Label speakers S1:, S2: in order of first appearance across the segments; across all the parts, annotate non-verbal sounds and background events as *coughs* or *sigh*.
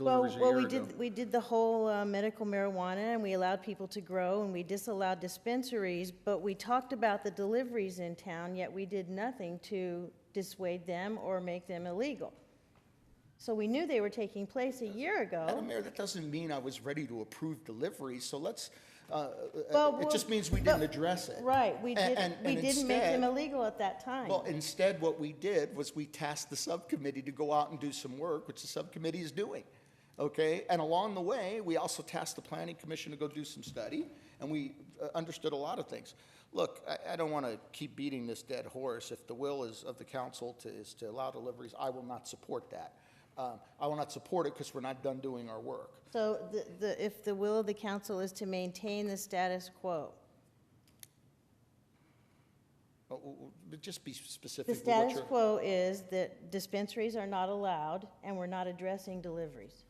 S1: Well,
S2: deliveries a
S1: well,
S2: year
S1: we
S2: ago.
S1: did, we did the whole uh, medical marijuana, and we allowed people to grow, and we disallowed dispensaries, but we talked about the deliveries in town, yet we did nothing to dissuade them or make them illegal. So we knew they were taking place a year ago.
S2: Madam Mayor, that doesn't mean I was ready to approve deliveries, so let's, uh,
S1: Well,
S2: it
S1: well,
S2: just means we
S1: but-
S2: didn't address it.
S1: Right, we
S2: A-
S1: didn't,
S2: and-
S1: we
S2: and
S1: didn't make them
S2: instead-
S1: illegal at that time.
S2: Well, instead, what we did was we tasked the subcommittee to go out and do some work, which the subcommittee is doing, okay? And along the way, we also tasked the planning commission to go do some study, and we uh, understood a lot of things. Look, I, I don't want to keep beating this dead horse. If the will is of the council to, is to allow deliveries, I will not support that. Um, I will not support it because we're not done doing our work.
S1: So the, the, if the will of the council is to maintain the status quo,
S2: Uh, w- w- But just be specific.
S1: the
S2: with what
S1: status
S2: you're-
S1: quo is that dispensaries are not allowed, and we're not addressing deliveries.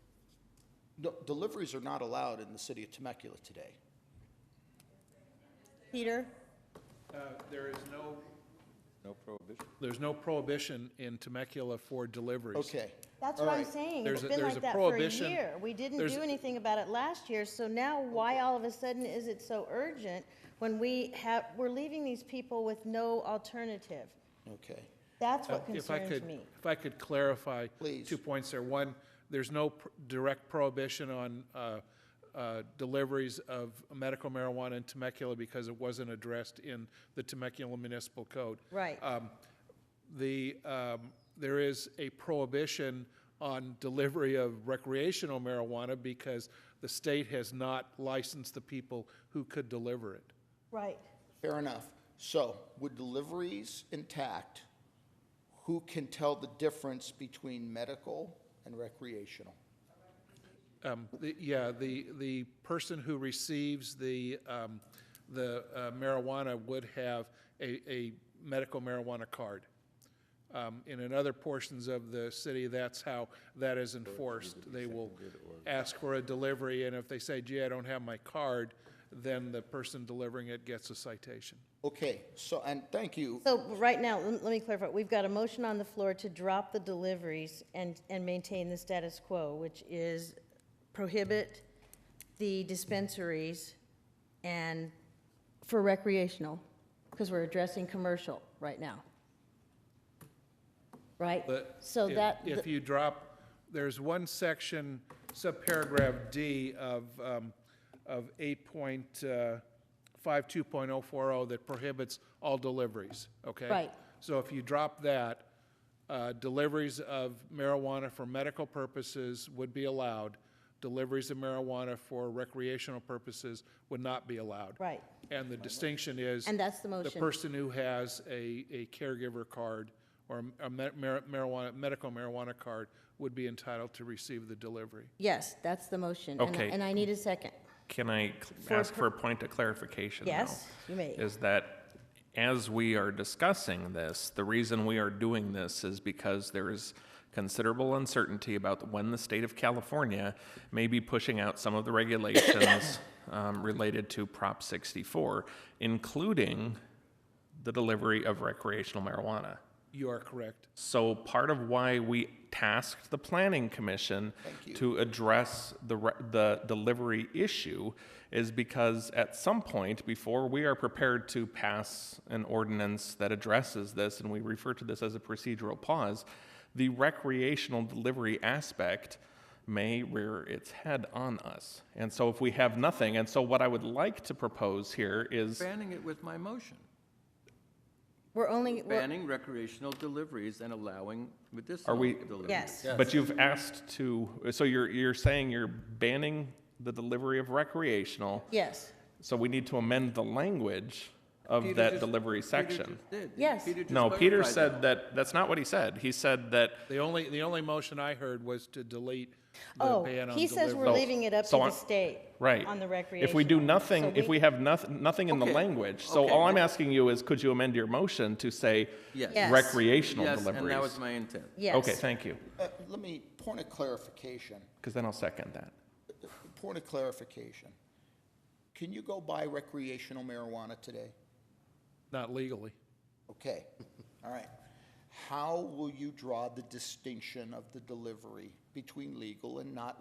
S2: No, Deliveries are not allowed in the city of Temecula today.
S1: Peter?
S3: Uh, There is no,
S4: No prohibition.
S3: there's no prohibition in Temecula for deliveries.
S2: Okay.
S1: That's
S2: All
S1: what I'm
S2: right.
S1: saying.
S3: There's
S1: It's
S3: a-
S1: been
S3: there's
S1: like
S3: a
S1: that for a
S3: prohibition.
S1: year. We didn't
S3: There's-
S1: do anything about it last year, so now why all of a sudden is it so urgent when we have, we're leaving these people with no alternative?
S2: Okay.
S1: That's
S3: Uh,
S1: what
S3: If I
S1: concerns
S3: could-
S1: me.
S3: If I could clarify.
S2: Please.
S3: Two points there. One, there's no pr- direct prohibition on uh, uh, deliveries of medical marijuana in Temecula because it wasn't addressed in the Temecula Municipal Code.
S1: Right.
S3: Um, The, um, there is a prohibition on delivery of recreational marijuana because the state has not licensed the people who could deliver it.
S1: Right.
S2: Fair enough. So with deliveries intact, who can tell the difference between medical and recreational?
S3: Um, the- Yeah, the, the person who receives the, um, the uh, marijuana would have a, a medical marijuana card. Um, And in other portions of the city, that's how that is enforced. They will ask for a delivery, and if they say, gee, I don't have my card, then the person delivering it gets a citation.
S2: Okay, so, and thank you.
S1: So right now, let let me clarify. We've got a motion on the floor to drop the deliveries and, and maintain the status quo, which is prohibit the dispensaries and for recreational, because we're addressing commercial right now. Right?
S3: But
S1: So
S3: if-
S1: that,
S3: If you drop, there's one section, subparagraph D of, um, of uh, 8.52.040 that prohibits all deliveries, okay?
S1: Right.
S3: So if you drop that, uh, deliveries of marijuana for medical purposes would be allowed. Deliveries of marijuana for recreational purposes would not be allowed.
S1: Right.
S3: And the distinction is.
S1: And that's the motion.
S3: The person who has a, a caregiver card or a ma- mar- marijuana, medical marijuana card would be entitled to receive the delivery.
S1: yes, that's the motion. and I-
S5: Okay.
S1: And I need a second.
S5: Can I
S1: For
S5: ask
S1: per-
S5: for a point of clarification? though?
S1: Yes, you may.
S5: Is that as we are discussing this, the reason we are doing this is because there is considerable uncertainty about when the state of California may be pushing out some of
S1: *coughs*
S5: the regulations um, related to Prop 64, including the delivery of recreational marijuana.
S3: You are correct.
S5: So part of why we tasked the planning commission to address the, re- the delivery issue is because at some point before we are prepared to pass an ordinance that addresses this, and we refer to this as a procedural pause, the recreational delivery aspect may rear its head on us. And so if we have nothing, and so what I would like to propose here is.
S6: Banning it with my motion.
S1: We're only, we're-
S6: Banning recreational deliveries and allowing medicinal
S5: Are we-
S6: deliveries.
S1: yes.
S5: But you've asked to, so you're, you're saying you're banning the delivery of recreational,
S1: Yes,
S5: so we need to amend the language
S6: Peter
S5: of that
S6: just-
S5: delivery
S6: Peter
S5: section.
S6: just did.
S1: Yes.
S6: Peter just
S5: No, Peter
S6: clarified
S5: said that, that's not what he said. He said that.
S3: The only, the only motion I heard was to delete the
S1: Oh,
S3: ban on
S1: he says we're
S5: So-
S3: delivery.
S1: leaving it up to
S5: so
S1: the
S5: on-
S1: state.
S5: Right.
S1: On the recreation.
S5: If we do nothing, if
S1: we-
S5: we have nothing, nothing in the
S6: Okay,
S5: language, so
S6: okay,
S5: all I'm
S6: but-
S5: asking you is, could you amend your motion to say
S6: Yes.
S1: Yes.
S5: recreational
S6: Yes,
S5: deliveries?
S6: and that was my intent.
S1: Yes.
S5: Okay, thank you,
S2: Uh, Let me, point of clarification,
S5: because then I'll second that.
S2: point of clarification. Can you go buy recreational marijuana today?
S3: Not legally.
S2: Okay, all right. How will you draw the distinction of the delivery between legal and not